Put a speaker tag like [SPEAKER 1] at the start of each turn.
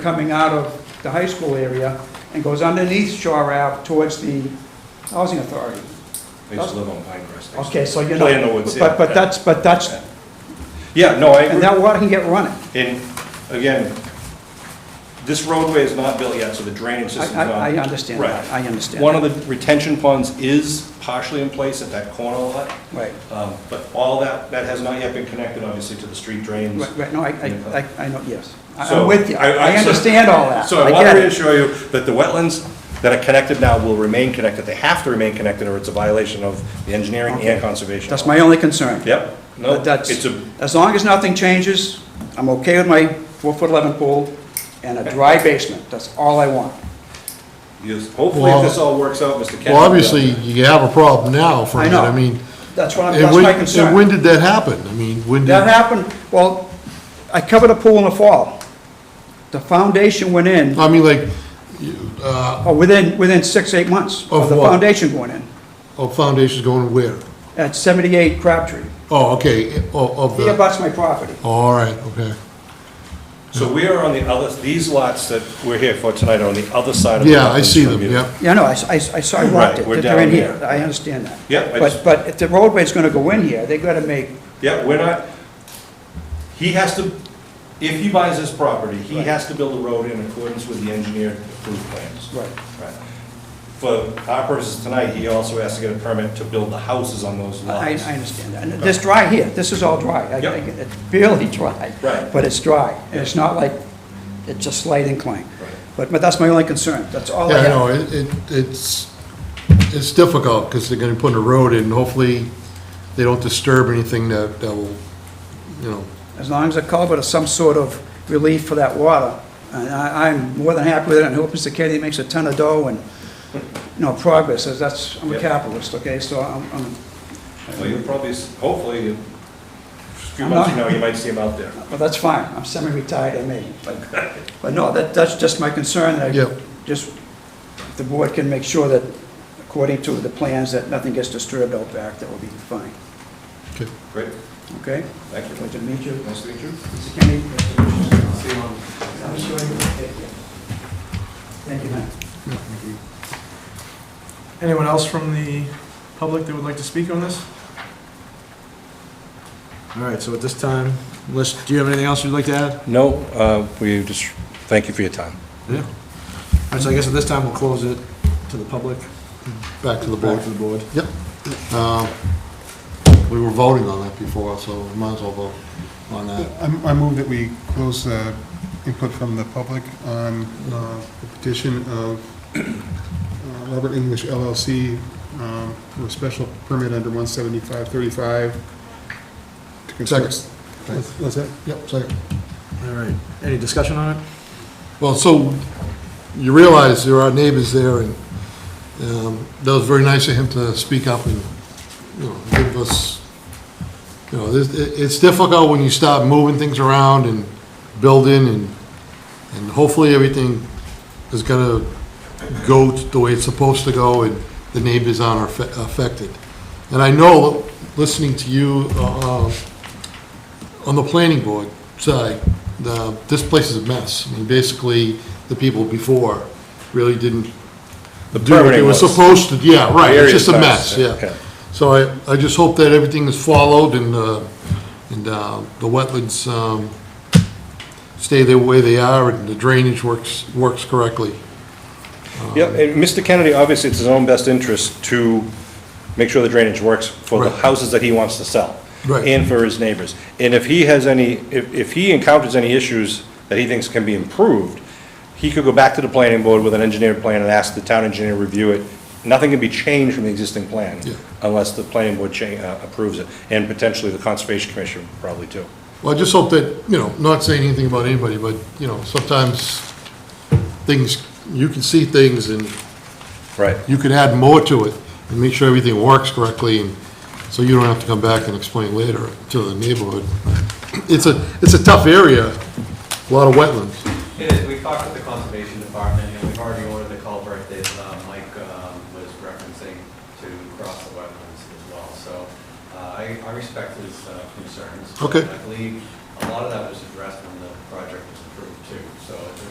[SPEAKER 1] coming out of the high school area and goes underneath Shore Ave towards the Housing Authority.
[SPEAKER 2] I used to live on Pinecrest. I used to
[SPEAKER 1] Okay, so you know.
[SPEAKER 2] Play in the woods, yeah.
[SPEAKER 1] But, but that's, but that's,
[SPEAKER 2] Yeah, no, I
[SPEAKER 1] and
[SPEAKER 2] agree.
[SPEAKER 1] that water can get running.
[SPEAKER 2] And again, this roadway is not built yet, so the drainage
[SPEAKER 1] I,
[SPEAKER 2] system's not.
[SPEAKER 1] I, I understand that,
[SPEAKER 2] Right.
[SPEAKER 1] I understand.
[SPEAKER 2] One of the retention ponds is partially in place at that corner lot,
[SPEAKER 1] Right,
[SPEAKER 2] um, but all that, that has not yet been connected, obviously, to the street drains.
[SPEAKER 1] right, right, no, I, I, I- I know, yes. I-
[SPEAKER 2] So,
[SPEAKER 1] I'm with you,
[SPEAKER 2] I- I-
[SPEAKER 1] I understand all that.
[SPEAKER 2] So I
[SPEAKER 1] get
[SPEAKER 2] want to
[SPEAKER 1] it.
[SPEAKER 2] reassure you that the wetlands that are connected now will remain connected. They have to remain connected, or it's a violation of the engineering
[SPEAKER 1] Okay.
[SPEAKER 2] and conservation.
[SPEAKER 1] That's
[SPEAKER 2] law.
[SPEAKER 1] my only concern.
[SPEAKER 2] Yep, no,
[SPEAKER 1] But that's,
[SPEAKER 2] it's a,
[SPEAKER 1] as long as nothing changes, I'm okay with my four-foot-eleven pool and a dry basement, that's all I want.
[SPEAKER 2] yes, hopefully if this all works out, Mr. Kennedy.
[SPEAKER 3] Well, obviously, you have a problem now from
[SPEAKER 1] I
[SPEAKER 3] it,
[SPEAKER 1] know.
[SPEAKER 3] I mean.
[SPEAKER 1] That's what I'm,
[SPEAKER 3] and
[SPEAKER 1] that's
[SPEAKER 3] when-
[SPEAKER 1] my concern.
[SPEAKER 3] And when did that happen? I mean, when did?
[SPEAKER 1] That happened, well, I covered a pool in the fall. The foundation went in,
[SPEAKER 2] Uh.
[SPEAKER 3] I mean, like, you, uh,
[SPEAKER 1] oh, within, within six, eight months of
[SPEAKER 3] Of
[SPEAKER 1] the
[SPEAKER 3] what?
[SPEAKER 1] foundation going in,
[SPEAKER 3] oh, foundation's going where?
[SPEAKER 1] at 78 Crabtree.
[SPEAKER 3] Oh, okay, oh, of
[SPEAKER 1] He
[SPEAKER 3] the,
[SPEAKER 1] abuts my property.
[SPEAKER 3] oh, all right, okay.
[SPEAKER 2] So we are on the other, these lots that we're here for tonight are on the other side of the.
[SPEAKER 3] Yeah, I
[SPEAKER 2] wetlands
[SPEAKER 3] see
[SPEAKER 2] from
[SPEAKER 3] them,
[SPEAKER 2] you.
[SPEAKER 3] yep.
[SPEAKER 1] Yeah, no, I, s- I s- I saw, I walked it,
[SPEAKER 2] we're
[SPEAKER 1] they're in
[SPEAKER 2] down
[SPEAKER 1] here,
[SPEAKER 2] here.
[SPEAKER 1] I understand that.
[SPEAKER 2] Yeah, I
[SPEAKER 1] But,
[SPEAKER 2] just-
[SPEAKER 1] but if the roadway's gonna go in here, they gotta make,
[SPEAKER 2] Yeah, we're not, he has to, if he buys this property, he
[SPEAKER 1] Right.
[SPEAKER 2] has to build a road in accordance with the engineered approved plans.
[SPEAKER 1] right,
[SPEAKER 2] Right. For our purposes tonight, he also has to get a permit to build the houses on those
[SPEAKER 1] I, I
[SPEAKER 2] lots.
[SPEAKER 1] understand that. And this dry here, this is all dry. I- I
[SPEAKER 2] Yep.
[SPEAKER 1] get- It's barely dry.
[SPEAKER 2] Right.
[SPEAKER 1] But it's dry, and it's not like, it's a slight incline.
[SPEAKER 2] Right.
[SPEAKER 1] But, but that's my only concern, that's all
[SPEAKER 3] Yeah,
[SPEAKER 1] I
[SPEAKER 3] I
[SPEAKER 1] have.
[SPEAKER 3] know, it, it- it's, it's difficult, because they're gonna put in a road in, hopefully, they don't disturb anything that, that will, you know,
[SPEAKER 1] As long as the culvert is some sort of relief for that water, and I, I'm more than happy with it, and hope Mr. Kennedy makes a ton of dough and, you know, progress, as that's, I'm a
[SPEAKER 2] Yep.
[SPEAKER 1] capitalist, okay, so I'm, I'm,
[SPEAKER 2] Well, you'll probably, s- hopefully, in a few
[SPEAKER 1] I'm not-
[SPEAKER 2] months from now, you might see him out there.
[SPEAKER 1] well, that's fine, I'm semi-retired, I may. But no, that, that's just my concern, that
[SPEAKER 3] Yep.
[SPEAKER 1] I, just, if the board can make sure that, according to the plans, that nothing gets disturbed out back, that will be fine,
[SPEAKER 3] okay.
[SPEAKER 2] Great,
[SPEAKER 1] okay?
[SPEAKER 2] thank you.
[SPEAKER 1] Pleasure to meet you,
[SPEAKER 2] Nice to meet you.
[SPEAKER 1] Mr. Kennedy. I'm sure you will take it. Thank you, man.
[SPEAKER 4] Anyone else from the public that would like to speak on this? All right, so at this time, unless, do you have anything else you'd like to add?
[SPEAKER 2] No, uh, we just, thank you for your time.
[SPEAKER 4] Yeah. All right, so I guess at this time, we'll close it to the public,
[SPEAKER 3] Back to the board.
[SPEAKER 4] back to the board.
[SPEAKER 3] Yep. Um, We were voting on that before, so we might as well vote on that.
[SPEAKER 5] I'm- I move that we close the input from the public on uh, the petition of uh, Robert English LLC um, for a special permit under 17535. to construct- What's what's that?
[SPEAKER 3] Yep, second.
[SPEAKER 4] All right, any discussion on it?
[SPEAKER 3] Well, so you realize there are neighbors there, and um, that was very nice of him to speak up and, you know, give us, you know, this- it- it's difficult when you start moving things around and building, and and hopefully everything is going to go t- the way it's supposed to go, and the neighbors aren't affe- affected. And I know, listening to you uh, uh, on the planning board side, the, this place is a mess. I mean, basically, the people before really didn't
[SPEAKER 2] The
[SPEAKER 3] do what they
[SPEAKER 2] permitting
[SPEAKER 3] were
[SPEAKER 2] was-
[SPEAKER 3] supposed to, yeah, right,
[SPEAKER 2] The
[SPEAKER 3] it's
[SPEAKER 2] area
[SPEAKER 3] just a
[SPEAKER 2] is
[SPEAKER 3] mess,
[SPEAKER 2] nice, yeah.
[SPEAKER 3] yeah. So I, I just hope that everything is followed and, uh, and, uh, the wetlands, um, stay the way they are and the drainage works, works correctly.
[SPEAKER 2] Yeah, and Mr. Kennedy, obviously, it's his own best interest to make sure the drainage works for the
[SPEAKER 3] Right.
[SPEAKER 2] houses that he wants to sell.
[SPEAKER 3] Right.
[SPEAKER 2] And for his neighbors. And if he has any, if, if he encounters any issues that he thinks can be improved, he could go back to the planning board with an engineered plan and ask the town engineer to review it. Nothing can be changed from the existing plan
[SPEAKER 3] Yeah.
[SPEAKER 2] unless the planning board cha- uh, approves it, and potentially the conservation commission probably too.
[SPEAKER 3] Well, I just hope that, you know, not saying anything about anybody, but, you know, sometimes things, you can see things and
[SPEAKER 2] Right.
[SPEAKER 3] you could add more to it and make sure everything works correctly, and so you don't have to come back and explain later to the neighborhood. It's a, it's a tough area, a lot of wetlands.
[SPEAKER 6] It is, we've talked with the conservation department, and we've already ordered the culvert that uh, Mike um, was referencing to cross the wetlands as well, so uh, I I respect his uh, concerns.
[SPEAKER 3] Okay.
[SPEAKER 6] I believe a lot of that was addressed when the project was approved too, so